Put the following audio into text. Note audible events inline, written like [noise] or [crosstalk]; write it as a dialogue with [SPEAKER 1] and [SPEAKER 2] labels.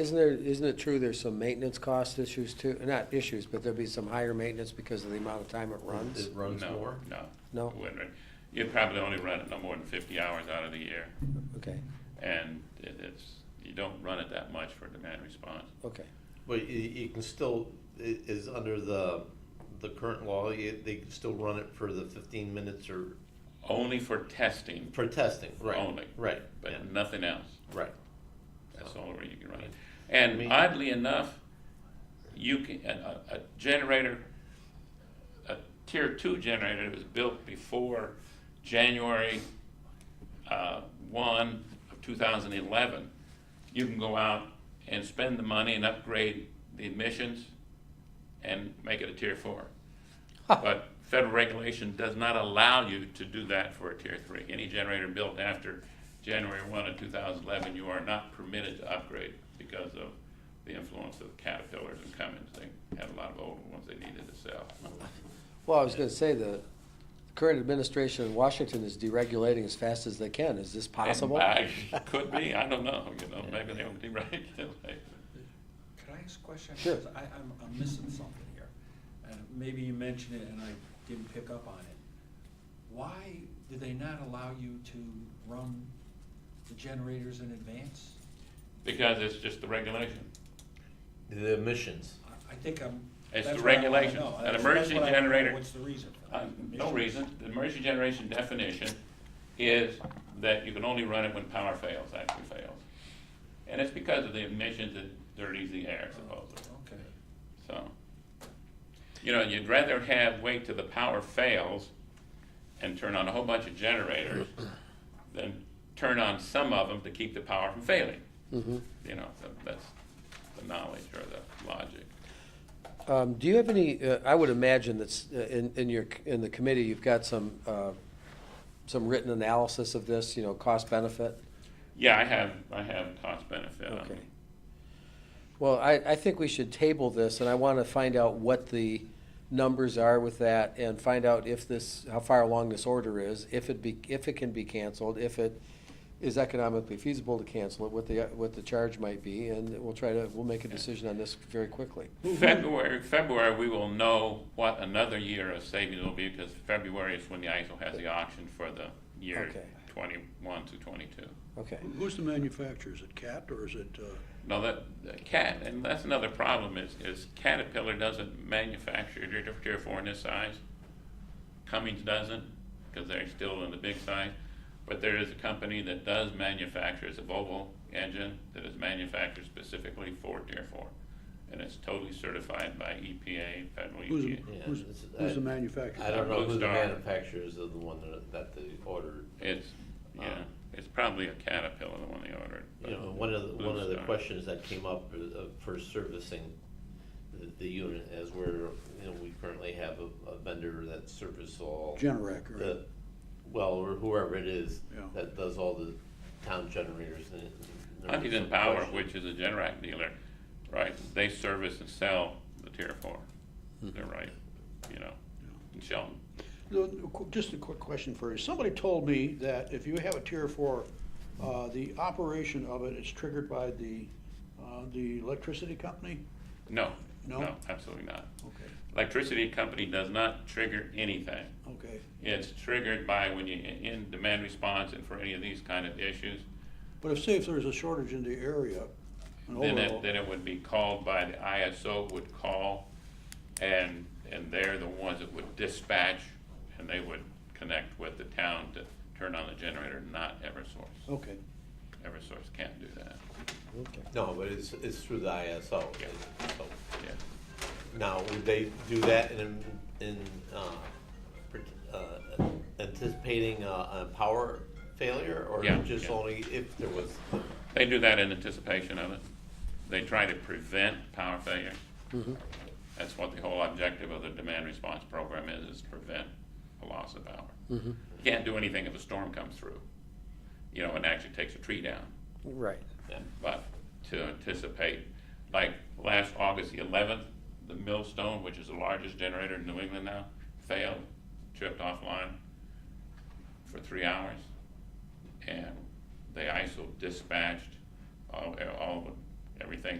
[SPEAKER 1] Isn't there, isn't it true there's some maintenance cost issues too? Not issues, but there'll be some higher maintenance because of the amount of time it runs?
[SPEAKER 2] It runs
[SPEAKER 3] No,
[SPEAKER 2] more?
[SPEAKER 3] No.
[SPEAKER 1] No?
[SPEAKER 3] It wouldn't run. You'd probably only run it no more than fifty hours out of the year,
[SPEAKER 1] Okay,
[SPEAKER 3] and it, it's, you don't run it that much for demand response.
[SPEAKER 1] okay.
[SPEAKER 2] But you, you can still, i- is under the, the current law, you, they can still run it for the fifteen minutes or,
[SPEAKER 3] Only for testing,
[SPEAKER 2] for testing, right?
[SPEAKER 3] Only.
[SPEAKER 2] Right, yeah,
[SPEAKER 3] but nothing else.
[SPEAKER 2] right.
[SPEAKER 3] That's the only way you can run it.
[SPEAKER 2] I
[SPEAKER 3] And
[SPEAKER 2] mean-
[SPEAKER 3] oddly enough, you can, a, a a generator, a tier two generator that was built before January, uh, one of two thousand eleven. You can go out and spend the money and upgrade the emissions and make it a tier four. But federal regulation does not allow you to do that for a tier three. Any generator built after January one of two thousand eleven, you are not permitted to upgrade because of the influence of Caterpillars and Cummins. They had a lot of old ones they needed to sell.
[SPEAKER 1] Well, I was gonna say, the current administration in Washington is deregulating as fast as they can. Is this possible?
[SPEAKER 3] And I- [laughs] Could be, I don't know, you know, maybe they'll [laughs] deregulate.
[SPEAKER 4] Could I ask a question?
[SPEAKER 1] Sure.
[SPEAKER 4] 'Cause I, I'm, I'm missing something here, and maybe you mentioned it and I didn't pick up on it. Why do they not allow you to run the generators in advance?
[SPEAKER 3] Because it's just the regulation.
[SPEAKER 2] The emissions.
[SPEAKER 4] I, I think I'm.
[SPEAKER 3] It's
[SPEAKER 4] that's
[SPEAKER 3] the
[SPEAKER 4] what I wanna
[SPEAKER 3] regulations.
[SPEAKER 4] know.
[SPEAKER 3] An
[SPEAKER 4] That's- that's
[SPEAKER 3] emergency
[SPEAKER 4] what I wanna know.
[SPEAKER 3] generator-
[SPEAKER 4] What's the reason? for that?
[SPEAKER 3] Uh, No
[SPEAKER 4] Emissions?
[SPEAKER 3] reason, the emergency generation definition is that you can only run it when power fails, actually fails. And it's because of the emissions that dirties the air supposedly,
[SPEAKER 4] Okay,
[SPEAKER 3] so. You know, you'd rather have, wait till the power fails and turn on a whole bunch of generators than turn on some of them to keep the power from failing. You know, so that's the knowledge or the logic.
[SPEAKER 1] Um, do you have any, uh, I would imagine that's, uh, in, in your, in the committee, you've got some, uh, some written analysis of this, you know, cost benefit?
[SPEAKER 3] Yeah, I have, I have cost benefit on
[SPEAKER 1] Okay. Well, I, I think we should table this, and I want to find out what the numbers are with that, and find out if this, how far along this order is, if it be, if it can be canceled, if it is economically feasible to cancel it, what the, what the charge might be, and we'll try to, we'll make a decision on this very quickly.
[SPEAKER 3] February, February, we will know what another year of savings will be, because February is when the ISO has the auction for the year
[SPEAKER 1] Okay.
[SPEAKER 3] twenty-one to twenty-two.
[SPEAKER 1] Okay.
[SPEAKER 5] Who's the manufacturer? Is it CAT or is it, uh,
[SPEAKER 3] Now, that, the Cat, and that's another problem, is, is Caterpillar doesn't manufacture Tier Tier Four in this size. Cummins doesn't, because they're still in the big size, but there is a company that does manufacture, it's a Volvo engine, that is manufactured specifically for Tier Four. And it's totally certified by EPA, federal E EPA.
[SPEAKER 5] who's,
[SPEAKER 2] Yeah,
[SPEAKER 5] who's,
[SPEAKER 2] it's-
[SPEAKER 5] who's the
[SPEAKER 2] I-
[SPEAKER 5] manufacturer?
[SPEAKER 2] I don't know who the
[SPEAKER 3] Bluestar.
[SPEAKER 2] manufacturers of the one that, that they ordered.
[SPEAKER 3] It's, yeah,
[SPEAKER 2] Um,
[SPEAKER 3] it's probably a Caterpillar, the one they ordered.
[SPEAKER 2] You know, one of, the- one of the
[SPEAKER 3] Bluestar.
[SPEAKER 2] questions that came up is, uh, for servicing the, the unit as where, you know, we currently have a, a vendor that services all.
[SPEAKER 5] Generac, right?
[SPEAKER 2] the, well, or whoever it is
[SPEAKER 5] Yeah.
[SPEAKER 2] that does all the town generators and. and there was
[SPEAKER 3] Huntington
[SPEAKER 2] some
[SPEAKER 3] Power,
[SPEAKER 2] question.
[SPEAKER 3] which is a Generac dealer, right, they service and sell the Tier Four. They're right, you know, in Shelton.
[SPEAKER 5] No, no, qu- Just a quick question for you. Somebody told me that if you have a tier four, uh, the operation of it is triggered by the, uh, the electricity company?
[SPEAKER 3] No,
[SPEAKER 5] No?
[SPEAKER 3] no, absolutely not.
[SPEAKER 5] Okay,
[SPEAKER 3] Electricity company does not trigger anything.
[SPEAKER 5] okay.
[SPEAKER 3] It's triggered by when you, in demand response and for any of these kind of issues,
[SPEAKER 5] But if, say if there's a shortage in the area, an
[SPEAKER 3] Then it,
[SPEAKER 5] overall,
[SPEAKER 3] then it would be called by the ISO would call, and, and they're the ones that would dispatch, and they would connect with the town to turn on the generator, not Eversource.
[SPEAKER 5] okay.
[SPEAKER 3] Eversource can't do that,
[SPEAKER 2] No, but it's, it's through the ISO.
[SPEAKER 3] Yeah.
[SPEAKER 2] so.
[SPEAKER 3] yeah.
[SPEAKER 2] Now, would they do that in, in, uh, pre- uh, anticipating a, a power failure? Or
[SPEAKER 3] Yeah,
[SPEAKER 2] just
[SPEAKER 3] yeah.
[SPEAKER 2] only if there was,
[SPEAKER 3] They do that in anticipation of it. They try to prevent power failure. That's what the whole objective of the demand response program is, is prevent a loss of power. You Can't do anything if a storm comes through, you know, and actually takes a tree down.
[SPEAKER 1] Right.
[SPEAKER 2] yeah,
[SPEAKER 3] but to anticipate, like last August the eleventh, the Millstone, which is the largest generator in New England now, failed, tripped offline for three hours. And the ISO dispatched all, all everything